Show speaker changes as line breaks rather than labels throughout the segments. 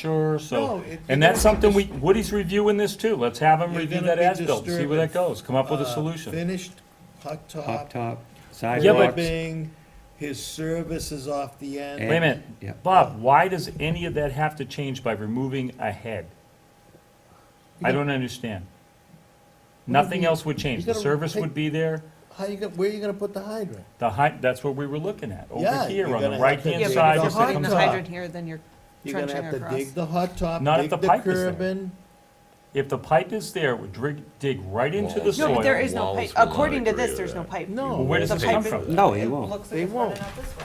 Sure,
No,
so,
it-
and that's something we, Woody's reviewing this too, let's have him
You're
review
gonna
that
be
as-built, see where that
disturbing,
goes, come up with a
uh,
solution.
Finished hot
Top
top,
top,
Yeah, but-
sidewalks.
ribbing, his service is off the end.
And-
Wait a minute,
Yeah.
Bob, why does any of that have to change by removing a head? I don't understand. Nothing else would change, the
gotta
service
take-
would be there,
How you gonna, where you gonna put the hydrant?
the height, that's what we were looking at, over
Yeah,
here
you're
on
gonna
the
have to
right-hand
dig
Yeah,
it
side.
all
but if you're
as it
holding
comes
the
up.
hydrant here, then you're
You're gonna
trenching
have to
across.
dig the hot top,
Not if
dig
the
the
pipe is there.
curbing.
If the pipe is there, it would dig, dig right into the
Walls.
soil.
No, but there is no pipe.
Walls will not
According to
agree
this,
with
there's no
that.
pipe.
No.
Well, Where does
The
this
pipe
come
is-
from?
No,
It
it won't.
looks like
They
it's running
won't.
out this way,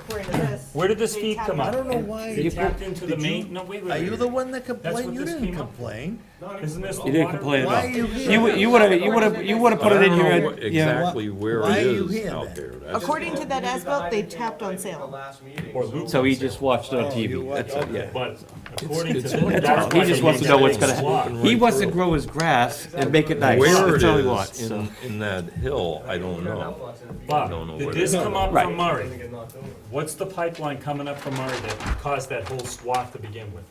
according to this.
Where did this
They
feed
tap
come
it.
out?
I don't know why.
They
you
tapped
put-
into the
did you-
main, no, wait, wait,
Are
wait,
you
wait.
the one that
what
complained? You
this
didn't
came up with.
complain.
Isn't this the
You didn't
water-
complain at
Why are
all.
you here?
You would, you would have, you would have, you would have put it in
I don't
here,
know
yeah.
Exactly where
Why
it
are you
is
here
out
then?
there. That's-
According to that as-built, they tapped on sale.
Or
So he just watched it on
Oh, You
TV.
what?
That's it, yeah.
But according to
it's-
them,
it's-
that's
it's-
why
He just
they
wants to know what's
made
gonna,
that
happen.
slot.
he wants to grow his grass and make it nice.
Where it
That's all he
is
wants, so.
in, in that hill, I don't know. I don't know
Bob, did
where
this
it is.
come up
Right.
from Murray? What's the pipeline coming up from Murray that caused that whole swath to begin with?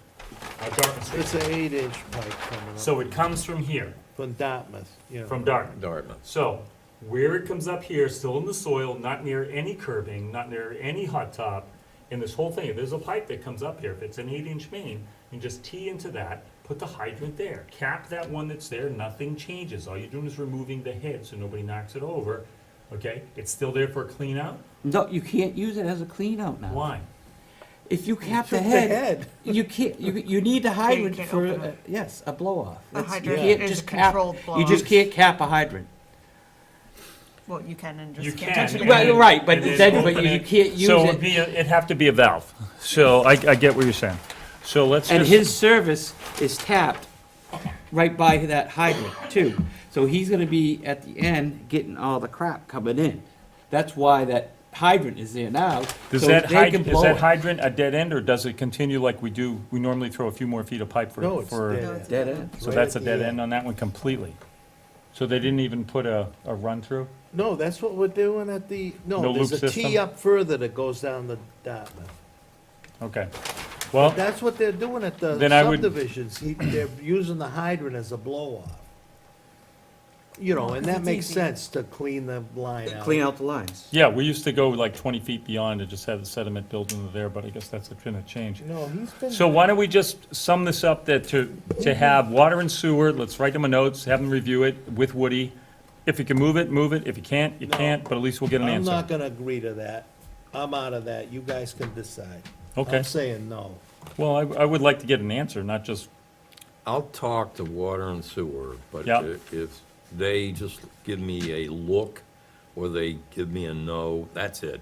Uh, Dartmouth Street.
It's an eight-inch pipe coming up
So it comes from here,
from Dartmouth, you know.
from Dartmouth.
Dartmouth.
So where it comes up here, still in the soil, not near any curbing, not near any hot top, and this whole thing, if there's a pipe that comes up here, if it's an eight-inch main, you just tee into that, put the hydrant there, cap that one that's there, nothing changes. All you're doing is removing the head so nobody knocks it over, okay? It's still there for a clean out?
No, you can't use it as a clean out now.
Why?
If you cap the
Took the
head,
head.
you can't, you, you need a hydrant
can't
for,
open
uh,
it.
yes, a blow off.
A
It's- you
hydrant
can't
is
just
a
cap-
controlled
You just
blow-off.
can't cap a hydrant.
Well, you can and
You
just
can.
can't touch it.
and
Well,
then-
you're right, but
and
then- but
open
you- you
it.
can't use
So
it.
it'd be, a- it'd have to be a valve. So I, I get what you're saying. So let's
And
just-
his service is tapped right by that hydrant too. So he's gonna be at the end getting all the crap coming in. That's why that hydrant is there now.
Does
so
that
they can
hydrant, is
blow
that
it.
hydrant a dead end, or does it continue like we do, we normally throw a few more feet of pipe for?
No, it's
for-
dead.
No, it's
Dead end.
So
Right
that's a
at the
dead
end.
end on that one completely? So they didn't even put a, a run-through?
No, that's what we're doing at the,
No
no,
loop
there's a tee
system?
up further that goes down the Dartmouth.
Okay. Well,
That's what they're doing at the
Then I would-
subdivisions, He- they're using the hydrant as a blow-off. You know, and that
it's
makes
easy.
sense to clean the line out.
Clean out the lines.
yeah, we used to go like twenty feet beyond and just have the sediment built into there, but I guess that's gonna change.
No, he's been.
So why don't we just sum this up that to, to have water and sewer, let's write them a notes, have them review it with Woody. If you can move it, move it. If you can't, you
No.
can't, but at least we'll get an
I'm
answer.
not gonna agree to that. I'm out of that. You guys can decide.
Okay.
I'm saying no.
Well, I, I would like to get an answer, not just
I'll talk to water and sewer, but
Yeah.
i- if they just give me a look or they give me a no, that's it.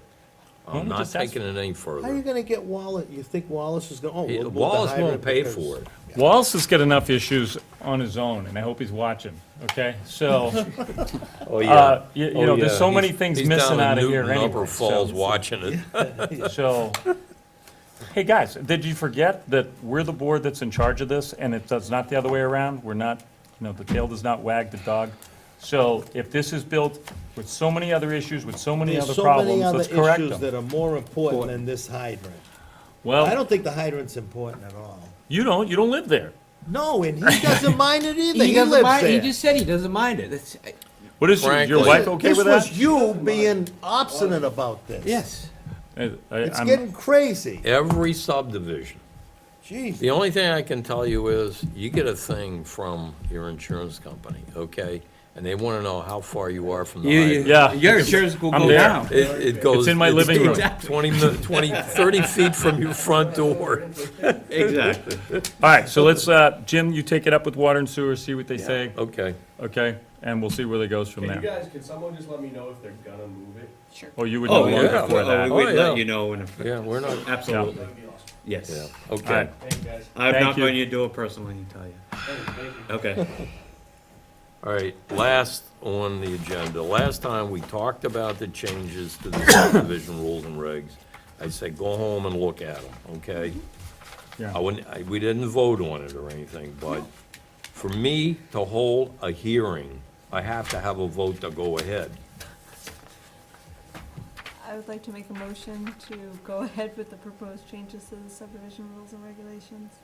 Why don't
I'm
we
not
just ask-
taking it any
How are you
further.
gonna get Wallace, you think Wallace is gonna, oh. we'll
It-
move the
Wallace won't
hydrant
pay
because-
for it.
Wallace has got enough issues on his own, and I hope he's watching, okay? So,
Oh,
uh, you, you know, there's so many things
He's down
missing
in
out of
Newton,
here
Upper
anyway.
Falls
So,
watching it.
so- hey, guys, did you forget that we're the board that's in charge of this, and it does not the other way around? We're not, you know, the tail does not wag the dog. So if this is built with so many other issues, with so many
There's
other
so many
problems,
other
let's correct
issues
them.
that are more important than this hydrant. I
Well,
don't think the hydrant's important at all.
you don't, you don't live there.
No, and he doesn't mind it either.
He
He,
doesn't
lives
mind, he
there.
just said he doesn't mind it. That's,
What is, your- your
Frankly-
wife okay
this
with
was
that?
you being obstinate about this.
yes.
I- I-
It's
I'm-
getting crazy.
Every subdivision.
Jeez.
The only thing I can tell you is, you get a thing from your insurance company, okay? And they wanna know how far you are from the
You- you-
hydrant.
Yeah.
Your insurance will
I'm
go
there.
down.
It, it goes.
in my living room.
Exactly. 20, mi- 20, 30 feet from your front door.
Exactly.
All right, so let's, uh, Jim, you take it up with water and sewer, see what they say,
Okay.
okay? And we'll see where that goes from
Can you
there.
guys, can someone just let me know if they're gonna move it?
Oh, you would know
Oh,
long
yeah.
before that.
we- Oh, yeah.
know, and,
Yeah, we're not,
absolutely,
That'd be awesome.
yeah,
yes.
All
okay.
right.
Thank you guys.
I've
Thank
knocked
you.
on your door personally, I tell you.
Thank you, thank you.
Okay.
All right, last on the agenda. Last time, we talked about the changes to the subdivision rules and regs. I said, go home and look at them, okay?
Yeah.
I wouldn't, I, we didn't vote on it or anything, but for me to hold a hearing, I have to have a vote to go ahead.
I would like to make a motion to go ahead with the proposed changes to the subdivision rules and regulations.